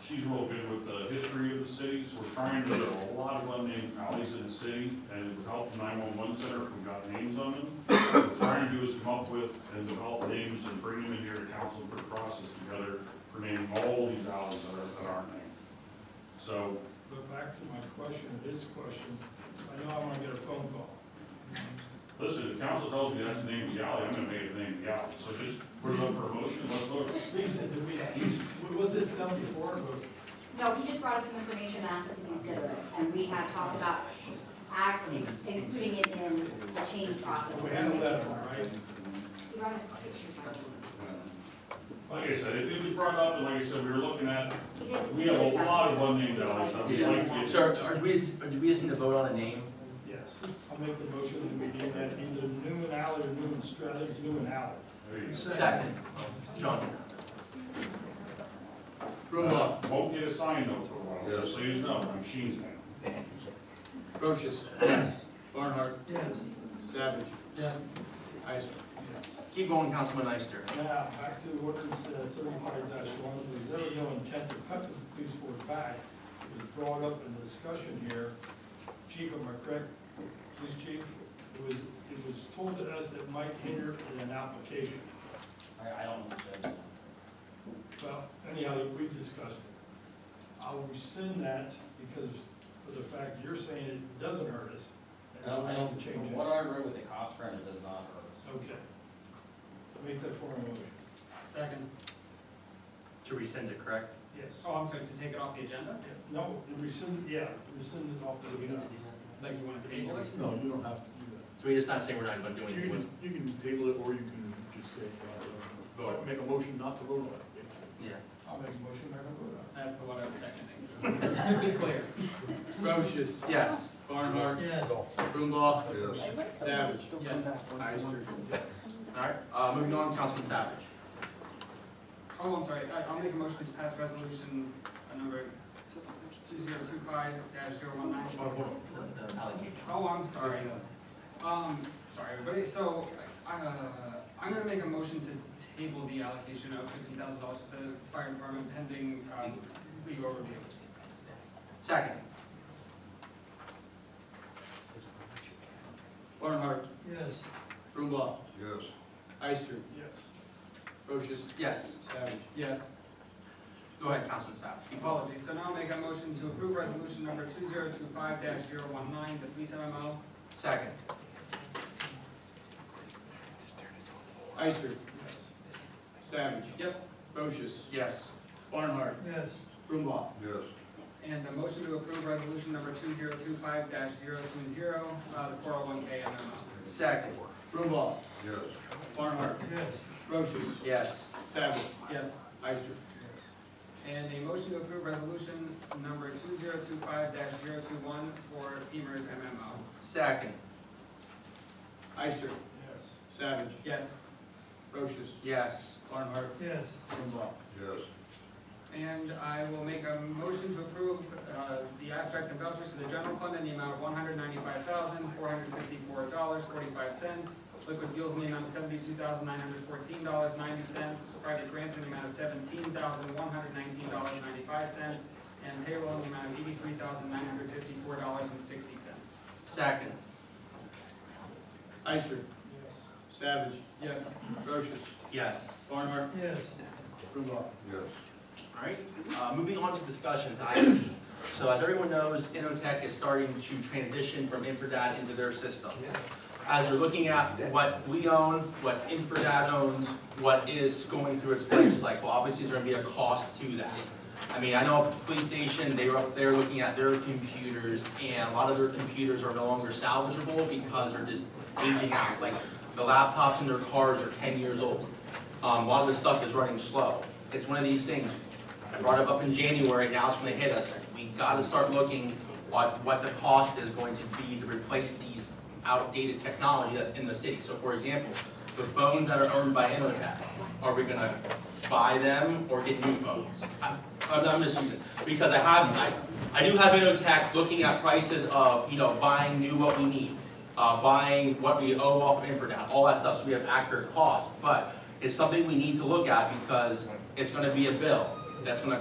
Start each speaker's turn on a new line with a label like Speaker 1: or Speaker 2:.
Speaker 1: she's real good with the history of the city, so we're trying to, there are a lot of unnamed alleys in the city, and with help from nine-one-one center, we've got names on them. What we're trying to do is come up with and develop names and bring them in here to council for the process together, for naming all these alleys that are, that aren't named. So,
Speaker 2: But back to my question, his question, I know I wanna get a phone call.
Speaker 1: listen, if council tells me that's the name of the alley, I'm gonna make it the name of the alley, so just put it up for a motion, let's vote.
Speaker 2: He said that we, was this done before, but
Speaker 3: No, he just brought us some information, asked us to consider it, and we had talked about act, including it in the change process.
Speaker 2: we had a letter, right?
Speaker 3: He brought us pictures, I think.
Speaker 1: Like I said, it it was brought up, and like I said, we were looking at
Speaker 3: He did-
Speaker 1: We have a
Speaker 3: he discussed
Speaker 1: lot of
Speaker 3: this.
Speaker 1: unnamed alleys, I would like to-
Speaker 4: So are- are we, are we just need to vote on a name?
Speaker 2: Yes. I'll make the motion that we name that either Newman Alley or Newman Strathers, Newman Alley.
Speaker 1: there you
Speaker 4: Second. John.
Speaker 1: go. Uh, Won't get a sign though for a while, just so you know, I'm Sheen's man.
Speaker 5: Brochus.
Speaker 4: Yes.
Speaker 5: Barnhart. Yes. Savage.
Speaker 4: Yes.
Speaker 5: Ister.
Speaker 4: Keep going, Councilman Ister.
Speaker 2: Now, back to ordinance thirty-five one, there was no intent to cut the police force back. It was brought up in discussion here. Chief, am I correct? Police chief, it was, it was told to us that might hinder an application.
Speaker 4: I don't.
Speaker 2: Well, anyhow, we discussed it. I'll rescind that because of the fact you're saying it doesn't hurt us. and so we don't change
Speaker 6: From
Speaker 2: it.
Speaker 6: what I read with the cops, friend, it does not hurt us.
Speaker 2: Okay. Make that form a motion.
Speaker 5: Second.
Speaker 4: To rescind it, correct?
Speaker 2: Yes.
Speaker 5: Oh, I'm sorry, to take it off the agenda?
Speaker 2: No, rescind, yeah, rescind it off the, you
Speaker 5: Like you want to table it?
Speaker 7: No, you don't have to do that.
Speaker 4: So we're just not saying we're not gonna do
Speaker 7: You
Speaker 4: anything with
Speaker 7: can,
Speaker 4: it?
Speaker 7: you can table it, or you can just say, uh,
Speaker 4: Vote.
Speaker 7: make a motion not to vote on it. basically.
Speaker 4: Yeah.
Speaker 2: I'll make a motion, I don't vote
Speaker 5: That's the one Uh, I was seconding. To be clear. Brochus.
Speaker 4: Yes.
Speaker 5: Barnhart.
Speaker 7: Yes.
Speaker 5: Brumbault.
Speaker 7: Yes.
Speaker 5: Savage. Yes. Ister.
Speaker 4: All right, uh, moving on, Councilman Savage.
Speaker 5: Oh, I'm sorry, I- I'll make a motion to pass resolution uh, number two zero two five dash zero one nine. Oh, I'm sorry. Um, sorry, everybody, so, uh, I'm gonna make a motion to table the allocation of fifty thousand dollars to fire department pending, um, legal review.
Speaker 4: Second.
Speaker 5: Barnhart,
Speaker 7: Yes.
Speaker 5: Brumbault,
Speaker 8: Yes.
Speaker 5: Ister,
Speaker 2: Yes.
Speaker 5: Brochus,
Speaker 4: Yes.
Speaker 5: Savage. Yes,
Speaker 4: Go ahead, Councilman Savage. Keep going.
Speaker 5: apologies, so now I'll make a motion to approve resolution number two zero two five dash zero one nine, the police MMO.
Speaker 4: Second.
Speaker 5: Ister. Savage. Yep. Brochus,
Speaker 4: Yes.
Speaker 5: Barnhart,
Speaker 7: Yes.
Speaker 5: Brumbault.
Speaker 8: Yes.
Speaker 5: And a motion to approve resolution number two zero two five dash zero two zero, uh, the four oh one K MMO.
Speaker 4: Second.
Speaker 5: Brumbault,
Speaker 8: Yes.
Speaker 5: Barnhart,
Speaker 7: Yes.
Speaker 5: Brochus,
Speaker 4: Yes.
Speaker 5: Savage. Yes. Ister. And a motion to approve resolution number two zero two five dash zero two one for Beamer's MMO.
Speaker 4: Second.
Speaker 5: Ister.
Speaker 2: Yes.
Speaker 5: Savage. Yes. Brochus,
Speaker 4: Yes.
Speaker 5: Barnhart,
Speaker 7: Yes.
Speaker 5: Brumbault.
Speaker 8: Yes.
Speaker 5: And I will make a motion to approve, uh, the abstracts and vouchers for the general fund in the amount of one hundred ninety-five thousand, four hundred fifty-four dollars, forty-five cents. Liquid fuels in the amount of seventy-two thousand, nine hundred fourteen dollars, ninety cents. Private grants in the amount of seventeen thousand, one hundred nineteen dollars, ninety-five cents. And payroll in the amount of eighty-three thousand, nine hundred fifty-four dollars and sixty cents.
Speaker 4: Second.
Speaker 5: Ister. Savage. Yes. Brochus.
Speaker 4: Yes.
Speaker 5: Barnhart.
Speaker 7: Yes.
Speaker 5: Brumbault.
Speaker 8: Yes.
Speaker 4: All right, uh, moving on to discussions, IT. So as everyone knows, Innotek is starting to transition from Infradat into their systems. As you're looking at what we own, what Infradat owns, what is going through its life cycle, obviously there's gonna be a cost to that. I mean, I know at the police station, they were up there looking at their computers, and a lot of their computers are no longer salvageable because they're just aging out. Like, the laptops in their cars are ten years old. Um, a lot of this stuff is running slow. It's one of these things, I brought it up in January, now it's gonna hit us. We gotta start looking at what the cost is going to be to replace these outdated technology that's in the city. So for example, the phones that are owned by Innotek, are we gonna buy them or get new phones? I- I'm, I'm just using, because I have, I, I do have Innotek looking at prices of, you know, buying new what we need, uh, buying what we owe off Infradown, all that stuff, so we have accurate cost. But it's something we need to look at because it's gonna be a bill that's gonna